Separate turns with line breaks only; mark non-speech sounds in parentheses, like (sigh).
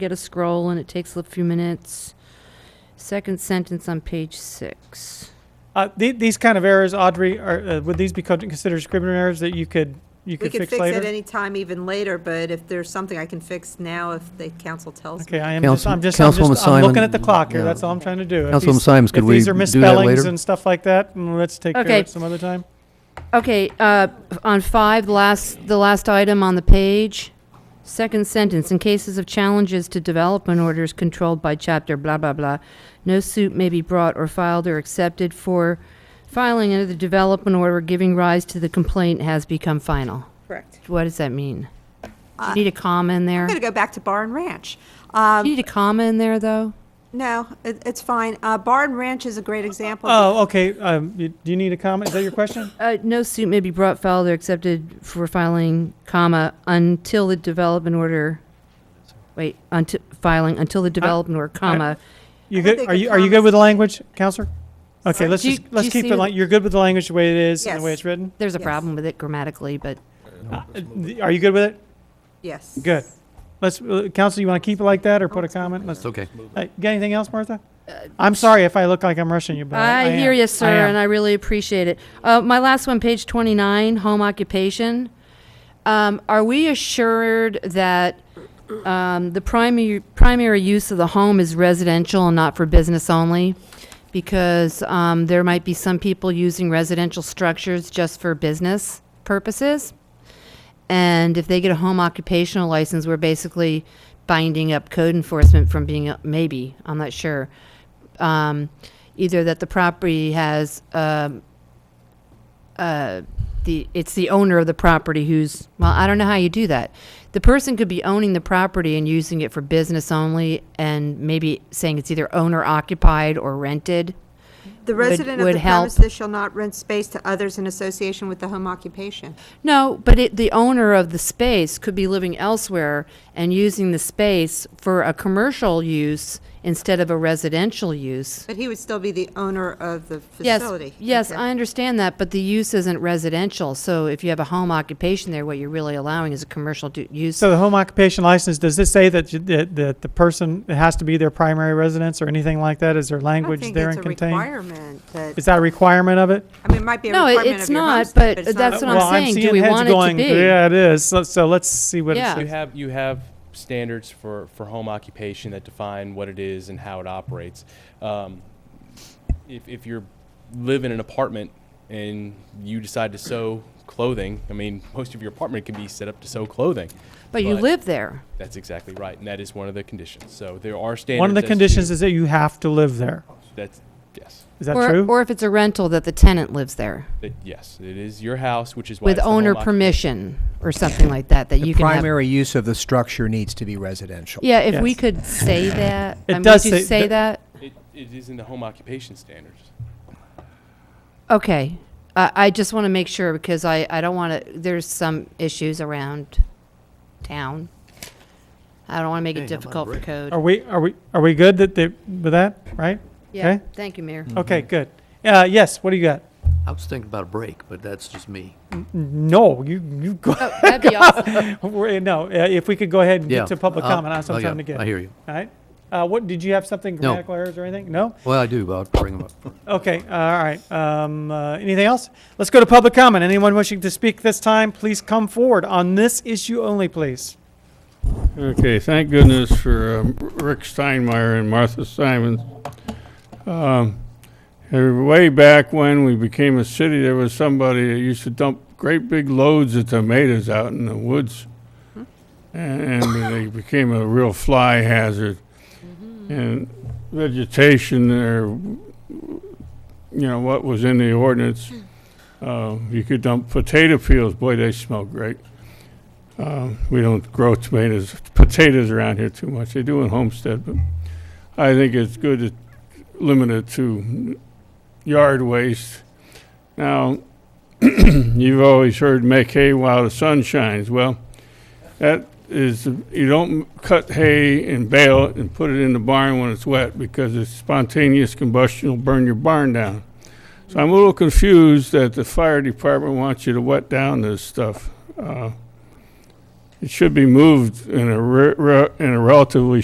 get a scroll and it takes a few minutes. Second sentence on page six.
Uh, the, these kind of errors, Audrey, are, uh, would these be con- considered scribbler errors that you could, you
We
could
could
fix
fix it
later?
any time, even later, but if there's something I can fix now, if the council tells me.
Okay, I am just, I'm
Councilm-
just, I'm just,
Councilwoman
I'm looking
Simon,
at the clock here,
yeah.
that's all I'm trying to do. If
Councilwoman
these-
Simons, could we
If these are
do that
misspellings
later?
and stuff like that, mm, let's take care of
Okay.
it some other time.
Okay, uh, on five, the last, the last item on the page, second sentence, in cases of challenges to development orders controlled by chapter blah, blah, blah, no suit may be brought or filed or accepted for filing under the development order giving rise to the complaint has become final.
Correct.
What does that mean? Do
Uh,
you need a comma in there?
I'm going to go back to Bar and Ranch.
Do you
Um,
need a comma in there, though?
No, it- it's fine. Uh, Bar and Ranch is a great example. of-
Oh, okay, um, you- do you need a comment, is that your
(laughs)
question?
Uh, no suit may be brought, filed, or accepted for filing, comma, until the development order, wait, until, filing, until the development order, comma.
You
I
good,
think
are
the
you, are you good
comments-
with the language, counselor? Okay, let's
Do you-
just, let's
do you
keep
see
the,
the-
la- you're good with the language the way it is and the way
Yes.
it's written?
There's a
Yes.
problem with it grammatically, but
Uh, th- Are you good with it?
Yes.
Good. Let's, uh, counsel, you want to keep it like
Oh,
that or put a comment? Let's,
It's okay.
Hey, you got anything else, Martha? I'm sorry if I look like I'm rushing you, but I,
Uh, I
am.
hear you, sir,
I am.
and I really appreciate it. Uh, my last one, page 29, home occupation. Um, are we assured that um, the primary primary use of the home is residential and not for business only? Because um, there might be some people using residential structures just for business purposes. And if they get a home occupational license, we're basically binding up code enforcement from being, maybe, I'm not sure. Um, either that the property has, um, uh, the, it's the owner of the property who's, well, I don't know how you do that. The person could be owning the property and using it for business only and maybe saying it's either owner occupied or rented.
The
would-
resident of
would
the
help.
premises shall not rent space to others in association with the home occupation.
No, but it, the owner of the space could be living elsewhere and using the space for a commercial use instead of a residential use.
But he would still be the owner of the
Yes,
facility.
yes,
Okay.
I understand that, but the use isn't residential, so if you have a home occupation there, what you're really allowing is a commercial du- use.
So the home occupation license, does this say that, you- that, that the person, it has to be their primary residence or anything like that? Is there language there and
I don't think it's a
contained?
requirement that,
Is that a requirement of it?
I mean, it might be a
No, it-
requirement
it's
of your
not, but
homestead, but it's
that's what
not.
I'm
Well, I'm
saying. Do
seeing
we
heads
want it to
going,
be?
Yeah, it is. So, so let's see what it
Yeah.
says.
You have, you have standards for, for home occupation that define what it is and how it operates. Um, if, if you live in an apartment and you decide to sew clothing, I mean, most of your apartment can be set up to sew clothing.
But you live there.
That's exactly right, and that is one of the conditions. So there are standards.
One of the
as to-
conditions is that you have to live there.
That's, yes,
Is that
or,
true?
Or if it's a rental, that the tenant lives there
that, yes, it is your house, which is why.
with
it's the home
owner
occup-
permission or something like that, that
The
you can have.
primary use of the structure needs to be residential.
Yeah, if we
Yes.
could
(laughs)
say that,
It
I mean,
does
would you
say-
say
th-
that?
It, it is in the home occupation standards.
Okay. I, I just want to make sure because I, I don't want to, there's some issues around town. I don't want to make it
Hey, how about a
difficult for
break?
code.
Are we, are we, are we good that, they- with that, right?
Yeah,
okay.
thank you, Mayor.
Okay, good. Uh, yes, what do you got?
I was thinking about a break, but that's just me.
No, you, you go.
Oh, that'd
(laughs)
be awesome.
Wait, No, uh, if we could go ahead and
Yeah.
get to public
uh,
comment, that's what
oh,
I'm
yeah,
trying to get.
I hear you.
All right. Uh, what, did you have something
No.
grammatical errors or anything? No?
Well, I do, but I'll bring them up.
Okay, all right. Um, uh, anything else? Let's go to public comment. Anyone wishing to speak this time, please come forward on this issue only, please.
Okay, thank goodness for um, Rick Steinmeier and Martha Simons. Um, and Way back when we became a city, there was somebody that used to dump great big loads of tomatoes out in the woods. And they became a real fly hazard. And vegetation or, you know, what was in the ordinance. Uh, You could dump potato fields, boy, they smell great. Um, We don't grow tomatoes, potatoes around here too much. They do in Homestead, but I think it's good to limit it to yard waste. Now, (clears throat) you've always heard make hay while the sun shines. Well, that is, you don't cut hay and bale it and put it in the barn when it's wet because it's spontaneous combustion will burn your barn down. So I'm a little confused that the fire department wants you to wet down this stuff. Uh, it should be moved in a, re- re- in a relatively